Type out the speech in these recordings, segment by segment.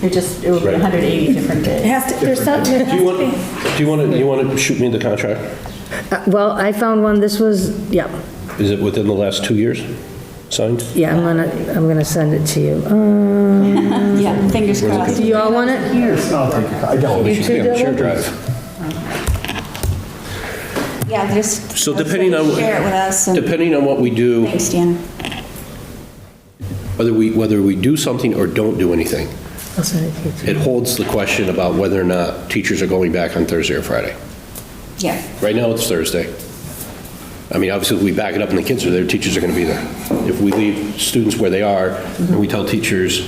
It just, it would be Right. 180 different days. It has to, there's something, it Do you has want, to be. do you want to, you want to shoot me the contract? Uh, Well, I found one, this was, yeah, Is it within the last two years signed? yeah, I'm gonna, I'm gonna send it to you. Um, Yeah, fingers crossed. Do you all want it? I'll take it. I don't. You two do it? drive. Yeah, just. So depending on- Share it with us. and- Depending on what we do, Thanks, Deanna. whether we, whether we do something or don't do anything, I'll send it to you. it holds the question about whether or not teachers are going back on Thursday or Friday. Yeah. Right now, it's Thursday. I mean, obviously, if we back it up and the kids are there, teachers are going to be there. If we leave students where they are, and we tell teachers,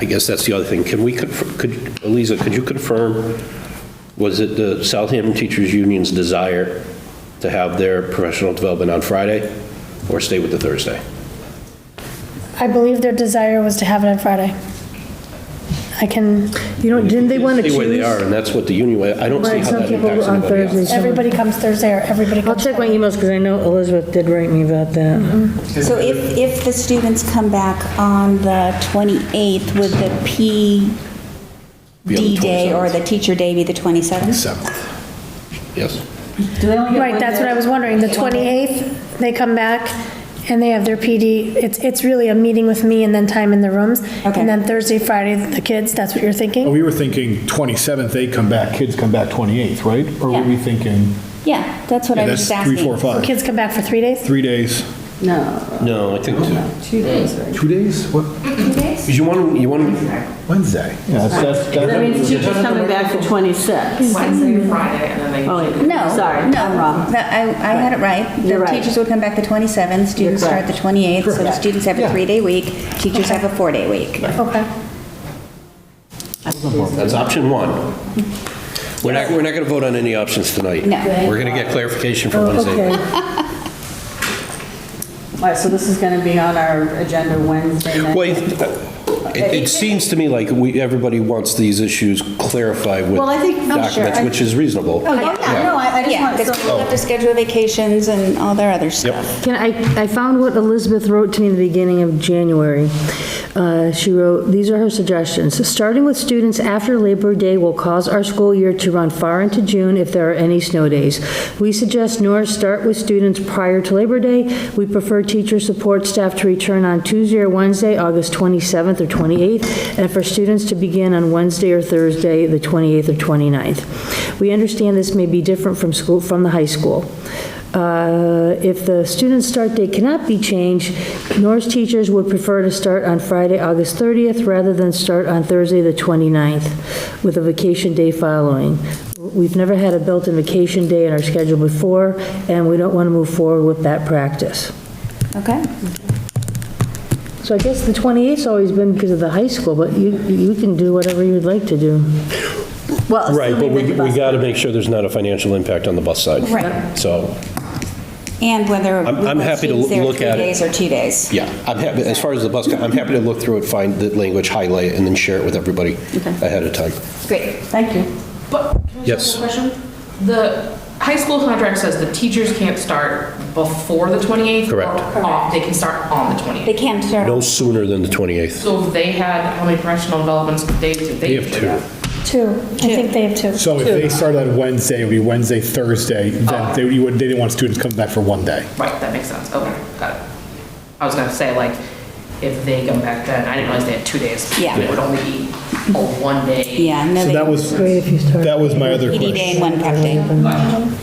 I guess that's the other thing, can we, conf- could, Eliza, could you confirm, was it the Southampton Teachers Union's desire to have their professional development on Friday, or stay with the Thursday? I believe their desire was to have it on Friday. I can, You know, didn't they want to choose? Stay where they are, and that's what the union, wa- I don't see Right, how some that people impacts on anybody else. Thursdays. everybody comes Thursday or everybody I'll comes. check my Friday. emails, because I know Elizabeth did write me about that. So if, if the students come back on the 28th, would the PD Be on the day or the teacher day be the 27th? Seventh. Yes. Do they only get Right, one that's what I day? was wondering. The 28th, they come back and they have their PD. It's, it's really a meeting with me and then time in the rooms. Okay. And then Thursday, Friday, the kids, that's what you're thinking? Oh, We were thinking 27th, they come back, kids come back 28th, right? Or were we Yeah. thinking, Yeah, that's what I Oh, yeah, was that's just three, four, asking. five, Kids come back for three days? three days. No, No, I think, two days, right? Two days? What, because you want to, you want to Wednesday? Yeah, that's, that's. That means teachers coming back the 26. Wednesday, and Friday, and then they. Oh, wait, No, Sorry, no, I'm wrong. that- I, I had it right. You're The right. teachers would come back the 27th, students start the 28th, so the students have a three-day week, teachers have a four-day week. Okay. That's option one. We're not, we're not going to vote on any options tonight. No. We're going to get Oh, clarification from Wednesday. Okay. All right, so this is going to be on our agenda Wednesday night. Well, it- it seems to me like we, everybody wants these issues clarified with Well, I think- I'm sure. documents, which is reasonable. Oh, yeah, no, I I just Yeah, want, because so people have Oh. to schedule vacations and all their other stuff. Can, I, I found what Elizabeth wrote to me in the beginning of January. Uh, She wrote, these are her suggestions. "Starting with students after Labor Day will cause our school year to run far into June if there are any snow days. We suggest Norris start with students prior to Labor Day. We prefer teacher support staff to return on Tuesday or Wednesday, August 27th or 28th, and for students to begin on Wednesday or Thursday, the 28th or 29th. We understand this may be different from school, from the high school. Uh, If the student start date cannot be changed, Norris teachers would prefer to start on Friday, August 30th, rather than start on Thursday, the 29th, with a vacation day following. We've never had a built-in vacation day in our schedule before, and we don't want to move forward with that practice. Okay. So I guess the 28th's always been because of the high school, but you, you can do whatever you'd like to do. well. Right, but assuming we, that the we bus- got to make sure there's not a financial impact on the bus side. Right. So, And whether. I'm- we I'm want happy to students there look at it. Three days or two days. yeah, I'm happy, as far as the bus, go- I'm happy to look through it, find the language, highlight, it, and then share it with everybody ahead of time. Great. Thank you. But, can I Yes. ask a question? The high school contract says the teachers can't start before the 28th. or Correct. Off, they can start on the 28th. They can't start. No sooner than the 28th. So if they had, how many professional developments days did they? do that? Two. I think they have two. So if they started on Wednesday, it would be Wednesday, Thursday, then they, you would, they didn't want students coming back for one day. Right, that makes sense, okay, got it. I was gonna say, like, if they come back then, I didn't realize they had two days. Yeah. It would only be a one day. Yeah, no, So they. that was, Great if you start. that was my other PD day question. and one prep day.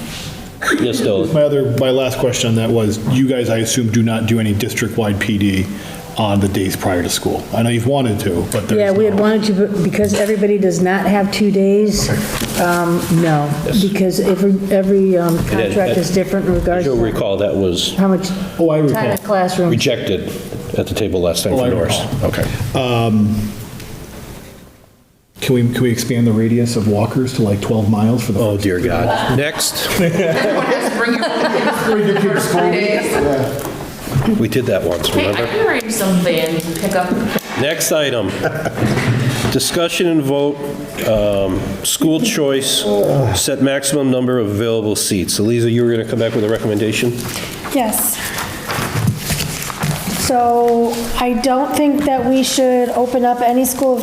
Yes, Dylan? My other, my last question on that was, you guys, I assume, do not do any district-wide PD on the days prior to school? I know you've wanted to, but there's. Yeah, we had no- wanted to, but because everybody does not have two days, um, no, because every, every um, contract is different in regards You'll to recall that was how much Oh, I time recall. in classroom. rejected at the table last time Oh, I for Norris. recall. Okay. Um, Can we, can we expand the radius of walkers to like 12 miles for the? Oh, dear God. Next. Everyone has to bring your own kids for the first three days. We did that once, Hey, I remember? can arrange something, pick up Next item, discussion and vote, um, school choice, set maximum number of available seats. Eliza, you were going to come back with a recommendation? Yes. So I don't think that we should open up any school